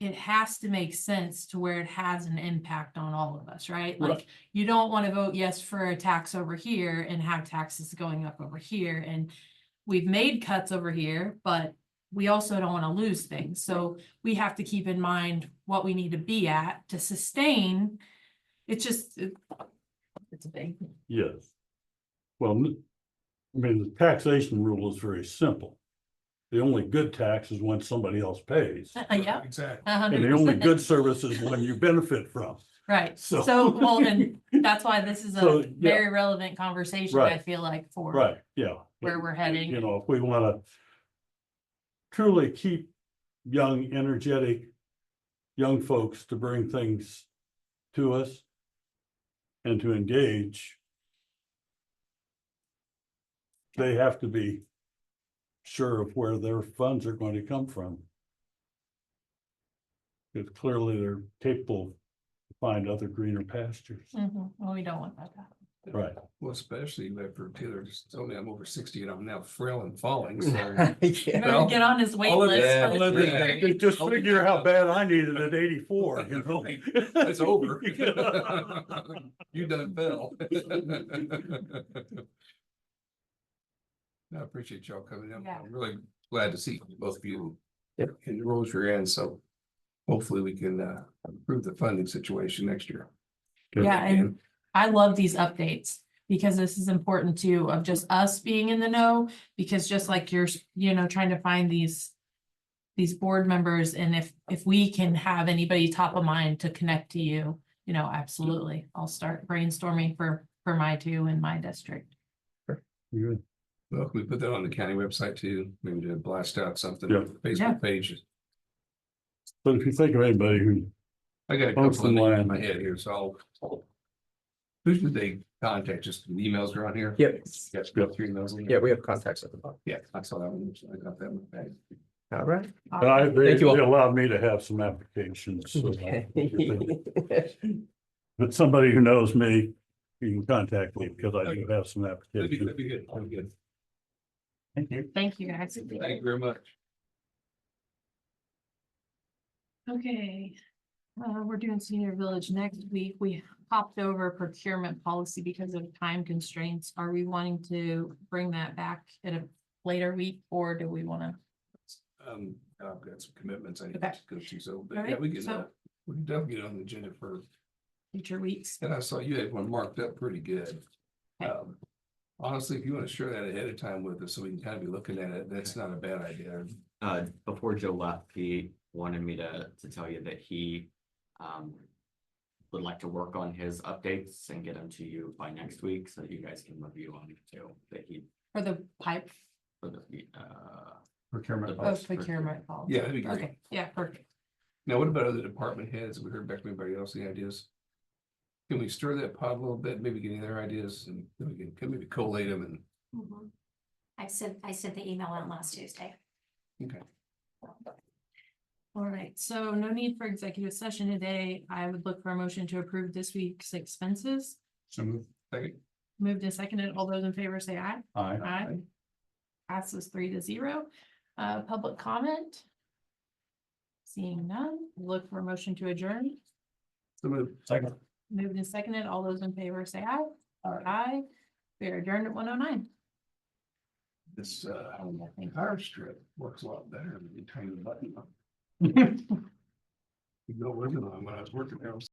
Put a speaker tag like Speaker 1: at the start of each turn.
Speaker 1: it has to make sense to where it has an impact on all of us, right?
Speaker 2: Right.
Speaker 1: Like, you don't want to vote yes for a tax over here and have taxes going up over here and we've made cuts over here, but we also don't want to lose things. So we have to keep in mind what we need to be at to sustain. It's just, it- it's a big,
Speaker 2: Yes. Well, n- I mean, the taxation rule is very simple. The only good tax is when somebody else pays.
Speaker 1: Uh, yeah,
Speaker 3: Exactly.
Speaker 1: a
Speaker 2: And
Speaker 1: hundred
Speaker 2: the only
Speaker 1: percent,
Speaker 2: good service is when you benefit from,
Speaker 1: right.
Speaker 2: so.
Speaker 1: So, well, and that's why this is
Speaker 2: So,
Speaker 1: a
Speaker 2: yeah.
Speaker 1: very relevant conversation, I
Speaker 2: Right.
Speaker 1: feel like, for
Speaker 2: Right, yeah.
Speaker 1: where we're
Speaker 2: You
Speaker 1: heading.
Speaker 2: know, if we wanna truly keep young, energetic, young folks to bring things to us and to engage, they have to be sure of where their funds are going to come from. Because clearly they're capable to find other greener pastures.
Speaker 1: Mhm. Well, we don't want that. to happen.
Speaker 2: Right.
Speaker 3: Well, especially after Taylor just told me I'm over sixty and I'm now frail and falling, so.
Speaker 1: Better
Speaker 3: Well,
Speaker 1: Get on his wait
Speaker 3: all of
Speaker 1: list.
Speaker 3: that-
Speaker 1: for
Speaker 3: all
Speaker 1: the
Speaker 3: of that-
Speaker 1: future.
Speaker 2: Just- Just figure how bad I needed at eighty-four, you know?
Speaker 3: It's over. You done fell. I appreciate y'all coming in.
Speaker 1: Yeah.
Speaker 3: I'm really glad to see both of you in the roles you're in, so hopefully we can uh improve the funding situation next year.
Speaker 1: Yeah, and I love these updates because this is important too of just us being in the know, because just like you're, you know, trying to find these. These board members and if, if we can have anybody top of mind to connect to you, you know, absolutely. I'll start brainstorming for, for my two in my district.
Speaker 2: Good.
Speaker 3: Well, can we put that on the county website too? Maybe to blast out something,
Speaker 2: Yeah.
Speaker 1: Yeah.
Speaker 3: Facebook page.
Speaker 2: But if you think of anybody who,
Speaker 3: I got a
Speaker 2: Folks
Speaker 3: couple of
Speaker 2: in
Speaker 3: names
Speaker 2: line.
Speaker 3: in my head here, so. I'll- Who should they contact? Just the emails are on here?
Speaker 4: Yep,
Speaker 3: Yes, we got three of those.
Speaker 4: yeah, we have contacts at the bottom.
Speaker 3: Yeah, I saw that one. I got that one. back.
Speaker 4: All right.
Speaker 2: and I, they,
Speaker 4: Thank
Speaker 2: they
Speaker 4: you all.
Speaker 2: allowed me to have some applications. so I- But somebody who knows me, you can contact me because I do have some
Speaker 3: That'd be,
Speaker 2: applications.
Speaker 3: that'd be good. That'd be good.
Speaker 2: Thank you.
Speaker 1: Thank you guys.
Speaker 3: Thank you very much.
Speaker 1: Okay, uh, we're doing senior village next week. We popped over procurement policy because of time constraints. Are we wanting to bring that back at a later week or do we wanna?
Speaker 3: Um, I've got some commitments I need
Speaker 1: Okay.
Speaker 3: to go to, so,
Speaker 1: All
Speaker 3: but
Speaker 1: right,
Speaker 3: yeah, we can,
Speaker 1: so-
Speaker 3: uh, we can definitely get on the agenda for,
Speaker 1: Future weeks.
Speaker 3: and I saw you had one marked up pretty good.
Speaker 1: Okay.
Speaker 3: Um, Honestly, if you want to share that ahead of time with us, so we can kind of be looking at it, that's not a bad idea.
Speaker 5: uh, before Joe left, he wanted me to, to tell you that he, um, would like to work on his updates and get them to you by next week so that you guys can review on it too, that he,
Speaker 1: For the pipe
Speaker 5: for the, uh,
Speaker 3: Procurement.
Speaker 1: of procurement policy.
Speaker 3: Yeah, that'd be great.
Speaker 1: Okay, yeah, perfect.
Speaker 3: Now, what about other department heads? We heard back from anybody else, any ideas? Can we stir that pot a little bit, maybe get any of their ideas and then we can, can maybe collate them
Speaker 6: Mhm. I sent, I sent the email out last Tuesday.
Speaker 3: and, okay.
Speaker 1: All right, so no need for executive session today. I would look for a motion to approve this week's expenses.
Speaker 3: So move. Second.
Speaker 1: Moved and seconded. All those in favor say aye.
Speaker 2: Aye.
Speaker 1: Aye. Passes three to zero. Uh, public comment? Seeing none, look for a motion to adjourn.
Speaker 3: So move.
Speaker 2: Second.
Speaker 1: Moved and seconded. All those in favor say aye.
Speaker 3: Aye.
Speaker 1: Aye. We are adjourned at one oh nine.
Speaker 3: This, uh, power strip works a lot better than you tiny button. You know, working on when I was working there, I was